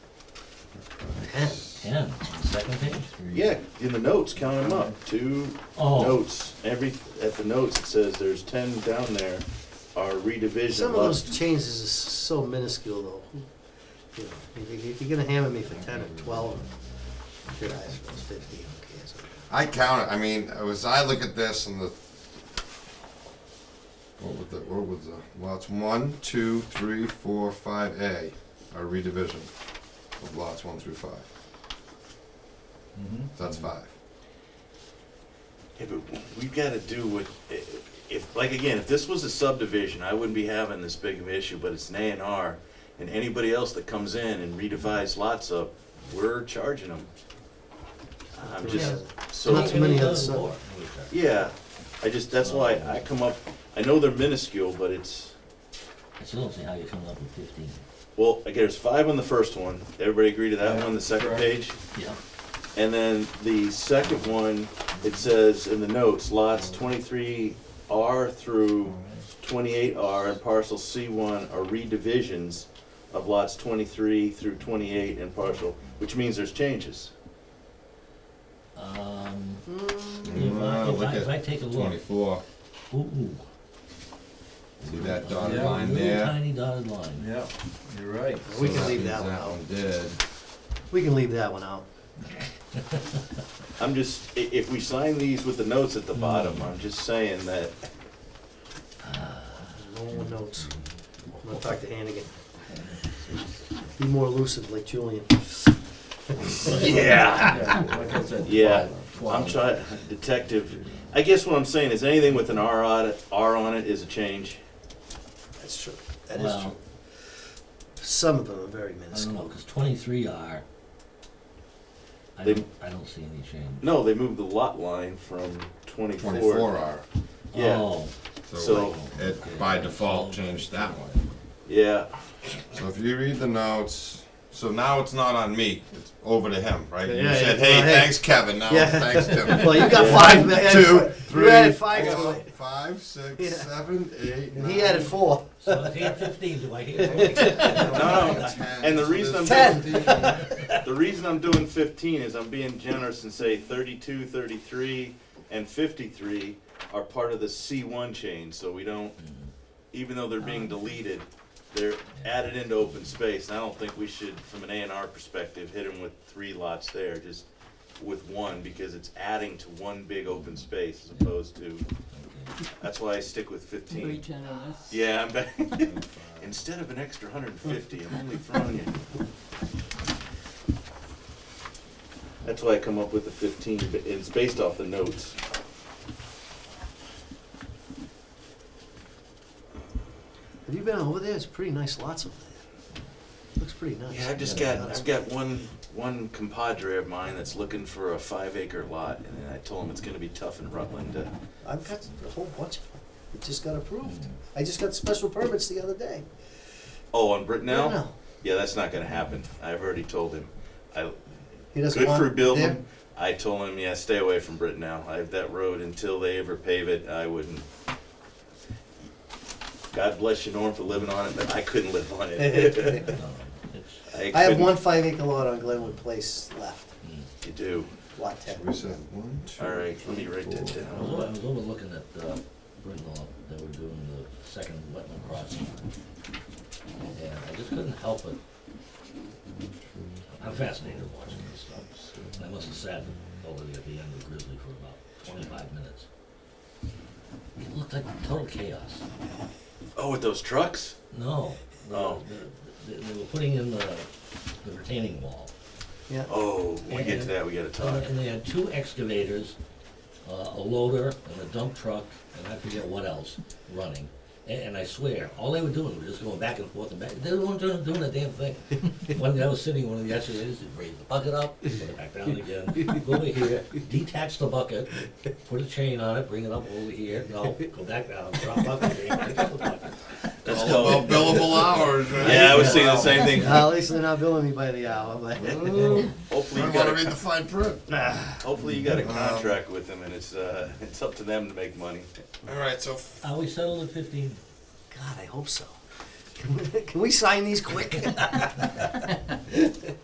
Ten, ten, on the second page? or- Yeah, in the notes, count them up, two Oh. notes, every, at the notes, it says there's ten down there are redivision. Some of those left. changes is so minuscule though. You know, if you- If you're gonna hammer me for ten or twelve, your eyes goes fifteen, okay, so. I count it. I mean, as I look at this and the what was the what was the lots one, two, three, four, five A are redivision of lots one through five. Mhm. So that's five. Yeah, but we've gotta do what, eh, if, like, again, if this was a subdivision, I wouldn't be having this big of an issue, but it's an A and R, and anybody else that comes in and redivides lots up, we're charging them. I'm just, so. Not too many Maybe a other little sub- more, we charge. Yeah, I just, that's why I come up, I know they're minuscule, but it's, I still don't see how you're coming up with fifteen. well, again, there's five on the first one. Everybody agree to that one, the second page? Yeah. And then the second one, it says in the notes, lots twenty-three R through twenty-eight R and parcel C one are redivisions of lots twenty-three through twenty-eight and parcel, which means there's changes. Um, Mm. if I, Wow, if look I, if I at take a look, twenty-four. ooh, See that dotted Yeah. line little there? tiny dotted line. Yeah, you're right. We So can leave means that one That out. one did. We can leave that one out. I'm just, i- if we sign these with the notes at the bottom, I'm just saying that, No more notes. I'm gonna talk to Hannigan. Be more elusive like Julian. yeah. Like I said, Yeah, I'm twelve. trying, detective, I guess what I'm saying is anything with an R on it, R on it is a change. That's true. That is Well, true. Some of them are I very don't know, minuscule. cause twenty-three are, I They- don't, I don't see any change. No, they moved the lot line from twenty-four. Twenty-four R. Yeah. Oh, So, It by default changed that one. yeah, So if you read the notes, so now it's not on me, it's over to him, right? You Yeah, said, yeah. hey, Well, hey." thanks Kevin, now Yeah. it's thanks Tim. Well, you got five, you added Two, fi- three, you added five, to four, it, five, six, Yeah. seven, eight, and nine. he added four. so it's eight fifteen, do I hear something? no, no, and the reason I'm. Ten. The reason I'm doing fifteen is I'm being generous and say 32, 33, and fifty-three are part of the C one change, so we don't, even though they're being deleted, they're added into open space, and I don't think we should, from an A and R perspective, hit them with three lots there, just with one, because it's adding to one big open space as opposed to, that's why I stick with fifteen. Yeah, I'm back. Instead of an extra hundred and fifty, I'm only throwing you. That's why I come up with the fifteen, but it's based off the notes. Have you been over there? It's pretty nice lots over there. Looks pretty nice. Yeah, I've just got, I've got one, one compadre of mine that's looking for a five acre lot, and then I told him it's gonna be tough in Rutland to. I've got a whole bunch of them. It just got approved. I just got special permits the other day. Oh, on Brittenell? No, Yeah, that's not gonna happen. I've already told him. I, He doesn't good want for it there. building. I told him, yeah, stay away from Britain now. I have that road until they ever pave it. I wouldn't. God bless you, Norm, for living on it, but I couldn't live on it. No, it's, I have couldn't. one five acre lot on Glenwood Place left, mm. You do. lot ten. We said one, two. All right, let me write that I was, down. over- I was overlooking at, uh, Brittenell, they were doing the second wetland crossing. And I just couldn't help it. I'm fascinated watching this stuff. And I must have sat over there at the end of Grizzly for about twenty-five minutes. It looked like total chaos. Oh, with those trucks? No, no, Oh. they, they were putting in the, the retaining wall. Yeah, Uh, Oh, when we get to that, we gotta Uh, talk. And they had two excavators, uh, a loader and a dump truck, and I forget what else, running. A- And I swear, all they were doing was just going back and forth and back, they weren't doing, doing a damn thing. One guy was sitting, in one of the excavators, he'd raise the bucket up, put it back down again, go over here, detach the bucket, put a chain on it, bring it up over here, no, go back down, drop bucket, chain, pick up the bucket. That's All called- about billable hours, man. Yeah, I was saying the same thing. Uh, at least they're not billing me by the hour, but Ooh, I Hopefully you don't got wanna read a, the fine print. hopefully you got a contract with them and it's, uh, it's up to them to make money. All right, so f- Are we settled at fifteen? God, I hope so. Can we, can we sign these quick?